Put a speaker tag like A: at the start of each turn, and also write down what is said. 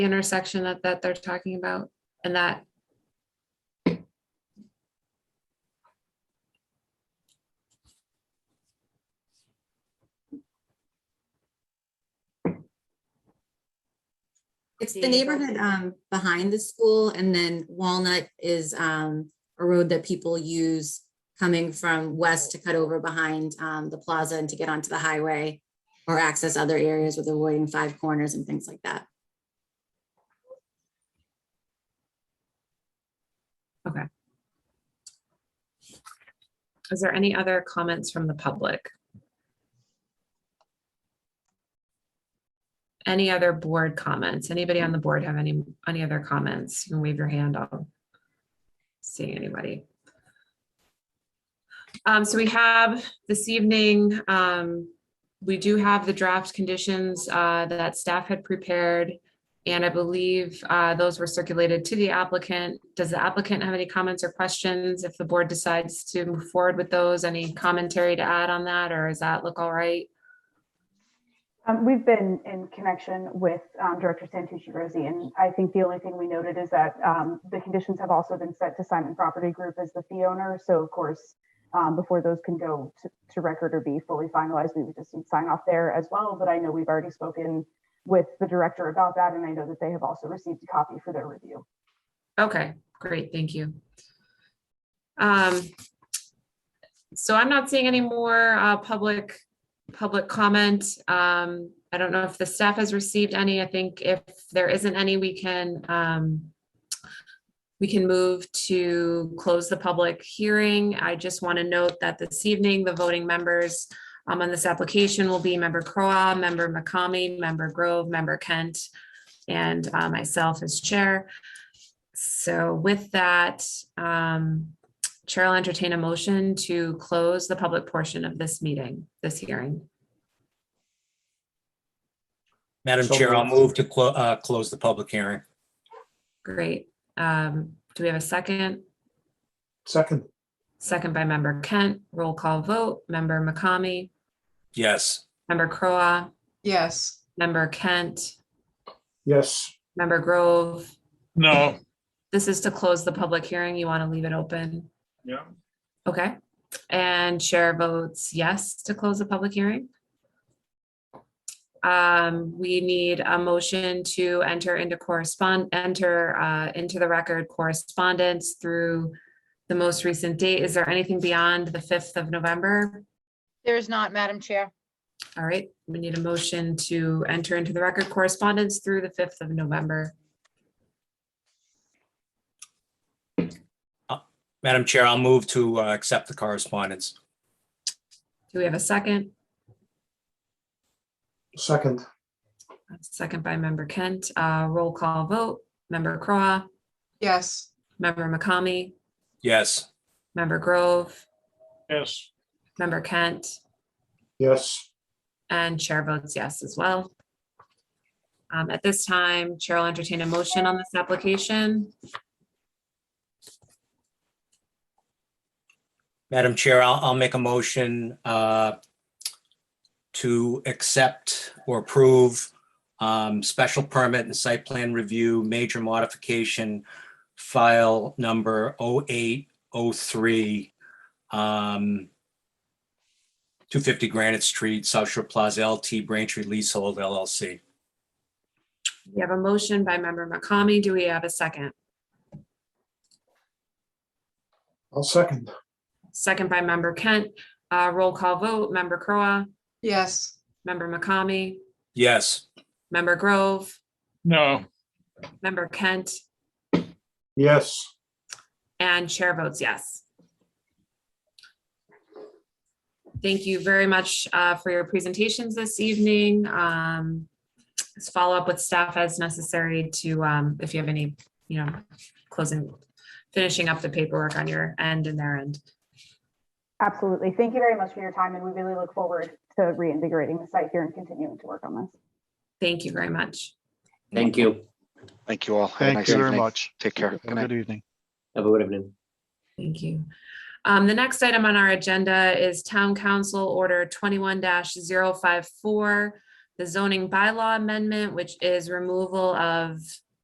A: intersection that, that they're talking about and that.
B: It's the
A: Yeah.
B: neighborhood um behind the school and then Walnut is um a road that people use coming from west to cut over behind um the plaza and to get onto the highway or access other areas with avoiding five corners and things like that.
A: Is there any other comments from the public? Any other board comments? Anybody on the board have any, any other comments? You can wave your hand. I'll see anybody. Um, so we have this evening, um, we do have the draft conditions, uh, that staff had prepared. And I believe, uh, those were circulated to the applicant. Does the applicant have any comments or questions? If the board decides to move forward with those, any commentary to add on that, or does that look all right?
C: Um, we've been in connection with um, Director Santucci Rosie, and I think the only thing we noted is that um, the conditions have also been set to Simon Property Group as the fee owner. So, of course, um, before those can go to, to record or be fully finalized, we would just need sign off there as well. But I know we've already spoken with the director about that, and I know that they have also received a copy for their review.
A: Okay, great, thank you. Um, so I'm not seeing any more, uh, public, public comment. Um, I don't know if the staff has received any. I think if there isn't any, we can, um, we can move to close the public hearing. I just want to note that this evening, the voting members um, on this application will be member Crowe, member McCamey, member Grove, member Kent, and uh, myself as chair. So with that, um, Chair will entertain a motion to close the public portion of this meeting, this hearing.
D: Madam
E: So
D: Chair, I'll
E: moved.
D: move to clo- uh, close the public hearing.
A: Great. Um, Do we have a second?
E: Second,
A: Second by member Kent. Roll call vote. Member McCamey,
D: Yes.
A: member Crowe,
F: Yes.
A: member Kent,
E: yes.
A: member Grove.
G: No.
A: This is to close the public hearing. You want to leave it open?
G: Yeah.
A: Okay. And chair votes yes to close the public hearing. Um, we need a motion to enter into correspond, enter, uh, into the record correspondence through the most recent date. Is there anything beyond the fifth of November?
F: There is not, Madam Chair.
A: All right, we need a motion to enter into the record correspondence through the fifth of November.
D: Madam Chair, I'll move to uh, accept the correspondence.
A: Do we have a second?
E: Second,
A: Second by member Kent, uh, roll call vote, member Crowe,
F: Yes.
A: member McCamey,
D: Yes.
A: member Grove,
G: Yes.
A: Member Kent
E: yes.
A: and chair votes yes as well. Um, At this time, Chair will entertain a motion on this application.
D: Madam Chair, I'll, I'll make a motion uh, to accept or approve um, special permit and site plan review, major modification, file number 0803, um, 250 Granite Street, South Shore Plaza LT, Braintree Leasehold LLC.
A: We have a motion by member McCamey. Do we have a second?
E: I'll second,
A: Second by member Kent. Uh, Roll call vote, member Crowe,
F: Yes.
A: member McCamey,
D: Yes.
A: member Grove,
G: No.
A: member Kent,
E: yes.
A: and chair votes yes. Thank you very much uh, for your presentations this evening. Um, Let's follow up with staff as necessary to, um, if you have any, you know, closing, finishing up the paperwork on your end and their end.
C: Absolutely. Thank you very much for your time, and we really look forward to reinvigorating the site here and continuing to work on this.
A: Thank you very much.
H: Thank you.
I: Thank you all. Have a
H: Thank
I: nice
H: you very
I: evening.
G: much.
I: Take care. Good
G: Have
I: night.
G: a good evening.
H: Have a good evening.
A: Thank you. Um, the next item on our agenda is Town Council Order twenty-one 54 the zoning bylaw amendment, which is removal of